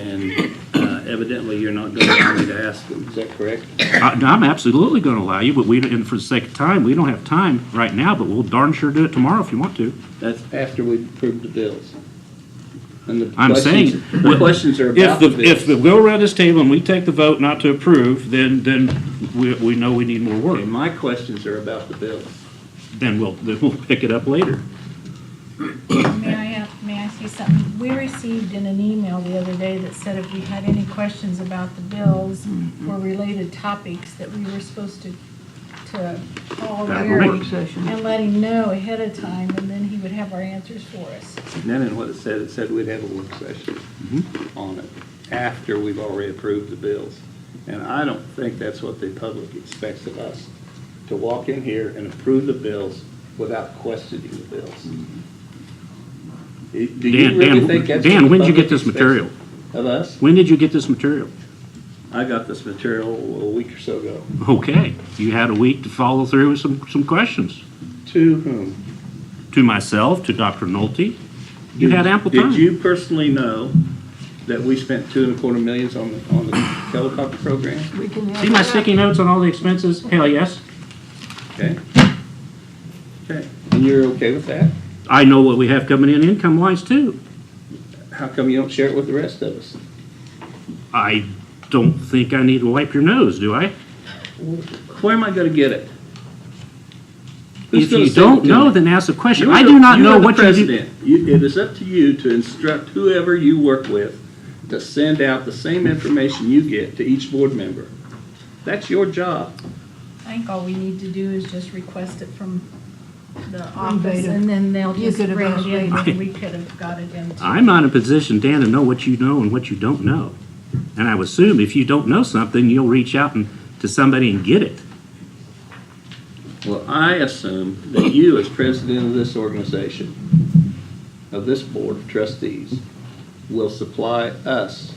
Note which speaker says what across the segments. Speaker 1: and uh, evidently you're not going to allow me to ask them, is that correct?
Speaker 2: I- I'm absolutely going to allow you, but we, and for the sake of time, we don't have time right now, but we'll darn sure do it tomorrow if you want to.
Speaker 1: That's after we approve the bills. And the
Speaker 2: I'm
Speaker 1: questions-
Speaker 2: saying-
Speaker 1: The questions are
Speaker 2: If
Speaker 1: about the
Speaker 2: the, if the,
Speaker 1: bills.
Speaker 2: go around this table and we take the vote not to approve, then, then we, we know we need more
Speaker 1: Okay,
Speaker 2: work.
Speaker 1: My questions are about the bills.
Speaker 2: Then we'll, then we'll pick it up later.
Speaker 3: May I, ask- may I say something? We received in an email the other day that said if you had any questions about the bills
Speaker 2: Mm-hmm.
Speaker 3: or related topics, that we were supposed to, to call
Speaker 2: That
Speaker 3: Gary
Speaker 2: works.
Speaker 3: and let him know ahead of time, and then he would have our answers for us.
Speaker 1: And then in what it said, it said we'd have a work session
Speaker 2: Mm-hmm.
Speaker 1: on it after we've already approved the bills. And I don't think that's what the public expects of us, to walk in here and approve the bills without questioning the bills. Do you
Speaker 2: Mm-hmm. Dan,
Speaker 1: really think
Speaker 2: Dan,
Speaker 1: that's what
Speaker 2: Dan,
Speaker 1: the
Speaker 2: when did you
Speaker 1: public
Speaker 2: get this
Speaker 1: expects
Speaker 2: material?
Speaker 1: Of us?
Speaker 2: When did you get this material?
Speaker 1: I got this material a week or so ago.
Speaker 2: Okay, you had a week to follow through with some, some questions.
Speaker 1: To whom?
Speaker 2: To myself, to Dr. Nolte, you had ample
Speaker 1: Did
Speaker 2: time.
Speaker 1: you personally know that we spent two and a quarter millions on, the on the helicopter program?
Speaker 4: We can have
Speaker 2: See my
Speaker 4: that.
Speaker 2: sticky notes on all the expenses? Hell, yes.
Speaker 1: Okay? Okay, and you're okay with that?
Speaker 2: I know what we have coming in income-wise too.
Speaker 1: How come you don't share it with the rest of us?
Speaker 2: I don't think I need to wipe your nose, do I?
Speaker 1: Where am I gonna get it? Who's
Speaker 2: If
Speaker 1: gonna send
Speaker 2: you
Speaker 1: it
Speaker 2: don't
Speaker 1: to
Speaker 2: know,
Speaker 1: me?
Speaker 2: then ask the question.
Speaker 1: You are
Speaker 2: I
Speaker 1: the-
Speaker 2: do not know
Speaker 1: are the
Speaker 2: what you do.
Speaker 1: president. You- It is up to you to instruct whoever you work with to send out the same information you get to each board member. That's your job.
Speaker 3: I think all we need to do is just request it from the
Speaker 4: From
Speaker 3: office,
Speaker 4: Beta.
Speaker 3: and then they'll
Speaker 4: You
Speaker 3: just
Speaker 4: could have
Speaker 3: bring it
Speaker 4: asked
Speaker 3: in,
Speaker 4: Beta.
Speaker 3: and we could have got it in.
Speaker 2: I'm not in a position, Dan, to know what you know and what you don't know. And I would assume if you don't know something, you'll reach out and, to somebody and get it.
Speaker 1: Well, I assume that you, as president of this organization, of this board of trustees, will supply us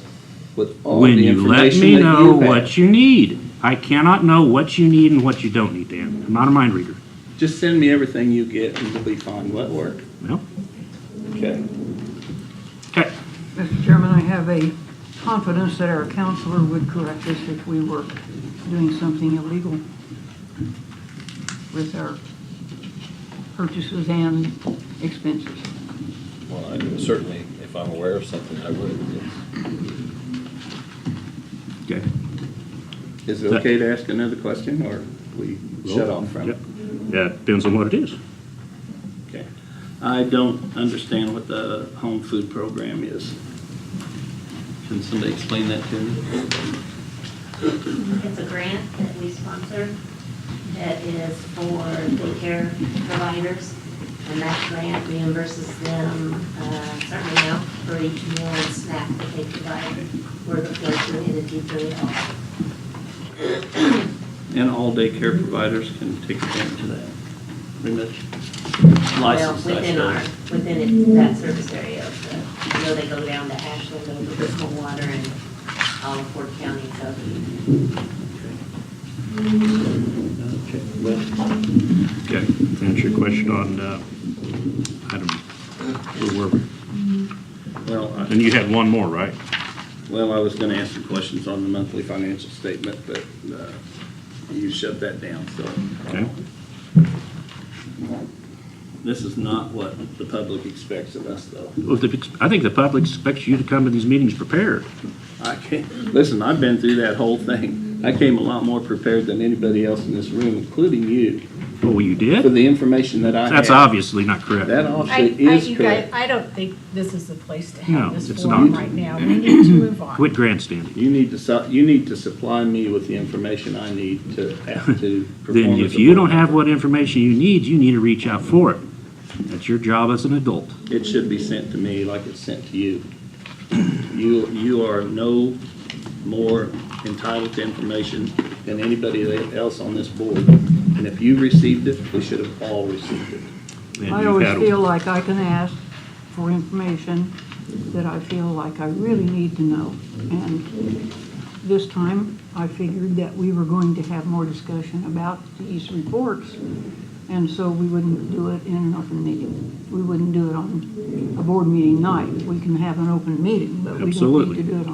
Speaker 1: with all
Speaker 2: When
Speaker 1: the
Speaker 2: you let
Speaker 1: information
Speaker 2: me
Speaker 1: that
Speaker 2: know
Speaker 1: you have.
Speaker 2: what you need. I cannot know what you need and what you don't need, Dan. I'm not a mind reader.
Speaker 1: Just send me everything you get and we'll be fine. Will that work?
Speaker 2: Well,
Speaker 1: Okay.
Speaker 2: okay.
Speaker 4: Mr. Chairman, I have a confidence that our counselor would correct us if we were doing something illegal with our purchases and expenses.
Speaker 5: Well, I mean, certainly, if I'm aware of something, I would, yes.
Speaker 2: Okay.
Speaker 1: Is it okay to ask another question or we shut off from it?
Speaker 2: Yeah, depends on what it is.
Speaker 1: Okay. I don't understand what the home food program is. Can somebody explain that to me?
Speaker 6: It's a grant that we sponsor that is for daycare providers, and that grant reimburses them uh, a certain amount for each meal and snack that they provide. We're the first entity to do it all.
Speaker 1: And all daycare providers can take advantage of that. Pretty much licensed,
Speaker 6: Well,
Speaker 1: I
Speaker 6: within our,
Speaker 1: suppose.
Speaker 6: within it- that service area of the, you know, they go down to Ashland, over to Coldwater and all of Ford County, so.
Speaker 1: Okay, well,
Speaker 2: Okay, to answer your question on, uh, item, where were we?
Speaker 1: well, I-
Speaker 2: And you had one more, right?
Speaker 1: well, I was gonna ask some questions on the monthly financial statement, but uh, you shut that down, so.
Speaker 2: Okay.
Speaker 1: This is not what the public expects of us, though.
Speaker 2: Well, the- I think the public expects you to come to these meetings prepared.
Speaker 1: I can't, listen, I've been through that whole thing. I came a lot more prepared than anybody else in this room, including you,
Speaker 2: Oh, you
Speaker 1: for
Speaker 2: did?
Speaker 1: the information that I had.
Speaker 2: That's obviously not correct.
Speaker 1: That
Speaker 3: I, I,
Speaker 1: offset is
Speaker 3: you guys,
Speaker 1: correct.
Speaker 3: I don't think this is the place to
Speaker 2: No,
Speaker 3: have this
Speaker 2: it's
Speaker 3: forum
Speaker 2: not.
Speaker 3: right now. We need to move on.
Speaker 2: Quit grandstanding.
Speaker 1: You need to, su- you need to supply me with the information I need to, to perform.
Speaker 2: Then
Speaker 1: as
Speaker 2: if
Speaker 1: a
Speaker 2: you
Speaker 1: board
Speaker 2: don't have
Speaker 1: member.
Speaker 2: what information you need, you need to reach out for it. That's your job as an adult.
Speaker 1: It should be sent to me like it's sent to you. You, you are no more entitled to information than anybody else on this board. And if you received it, we should have all received it.
Speaker 2: And
Speaker 4: I
Speaker 2: you've
Speaker 4: always
Speaker 2: had a-
Speaker 4: feel like I can ask for information that I feel like I really need to know. And this time, I figured that we were going to have more discussion about these reports And so we wouldn't do it in an open meeting. We wouldn't do it on a board meeting night. We can have an open meeting, but we don't need
Speaker 2: Absolutely.
Speaker 4: to do it on